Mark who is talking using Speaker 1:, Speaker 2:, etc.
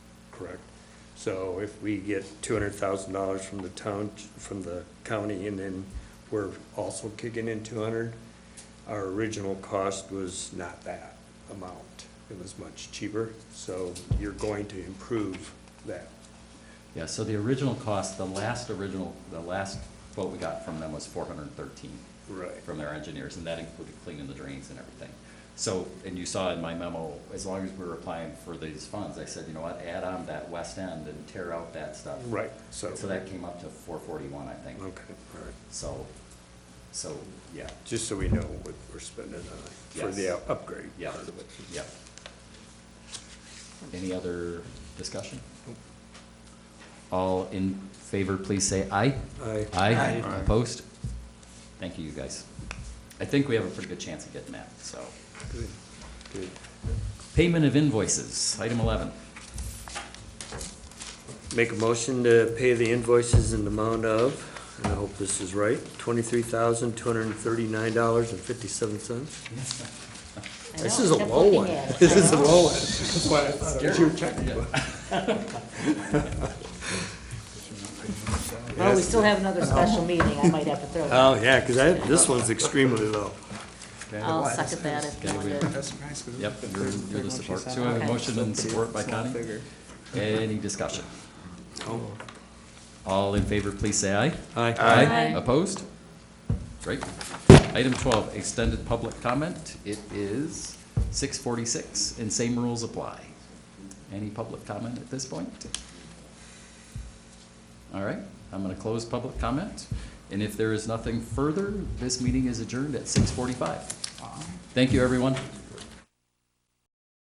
Speaker 1: So if we get two hundred thousand dollars from the town, from the county, and then we're also kicking in two hundred, our original cost was not that amount. It was much cheaper, so you're going to improve that.
Speaker 2: Yeah, so the original cost, the last original, the last quote we got from them was four hundred and thirteen
Speaker 1: Right.
Speaker 2: from their engineers, and that included cleaning the drains and everything. So, and you saw in my memo, as long as we were applying for these funds, I said, you know what, add on that west end and tear out that stuff.
Speaker 1: Right, so,
Speaker 2: So that came up to four forty-one, I think.
Speaker 1: okay, all right.
Speaker 2: So, so, yeah,
Speaker 1: Just so we know what we're spending on for the
Speaker 2: Yes.
Speaker 1: upgrade.
Speaker 2: yeah,
Speaker 1: part of it.
Speaker 2: yeah. Any other discussion? All in favor, please say aye.
Speaker 1: Aye.
Speaker 2: Aye. Opposed? Thank you, you guys. I think we have a pretty good chance of getting that, so.
Speaker 1: Good, good.
Speaker 2: Payment of invoices, item eleven.
Speaker 1: Make a motion to pay the invoices in the amount of, and I hope this is right, twenty-three thousand, two hundred and thirty-nine dollars and fifty-seven cents.
Speaker 3: I
Speaker 1: This
Speaker 3: know,
Speaker 1: is a
Speaker 3: kept
Speaker 1: low
Speaker 3: looking
Speaker 1: one.
Speaker 3: at it.
Speaker 1: This
Speaker 3: I
Speaker 1: is a
Speaker 3: know.
Speaker 1: low one. That's why I thought it was your checkbook.
Speaker 3: Well, we still have another special meeting, I might have to throw it.
Speaker 1: Oh, yeah, because I, this one's extremely low.
Speaker 3: I'll suck at that if you want to.
Speaker 4: That's nice, 'cause
Speaker 2: Yep,
Speaker 4: the
Speaker 2: you're,
Speaker 4: third-
Speaker 2: you're
Speaker 4: third one
Speaker 2: the
Speaker 4: she
Speaker 2: support.
Speaker 4: sent
Speaker 2: So I have a
Speaker 3: Okay.
Speaker 2: motion and support by
Speaker 4: Small
Speaker 2: Connie.
Speaker 4: figure.
Speaker 2: Any discussion?
Speaker 1: Oh,
Speaker 2: All in favor, please say aye.
Speaker 1: Aye.
Speaker 3: Aye.
Speaker 2: Opposed? Great. Item twelve, extended public comment. It is six forty-six, and same rules apply. Any public comment at this point? All right, I'm gonna close public comment, and if there is nothing further, this meeting is adjourned at six forty-five. Thank you, everyone.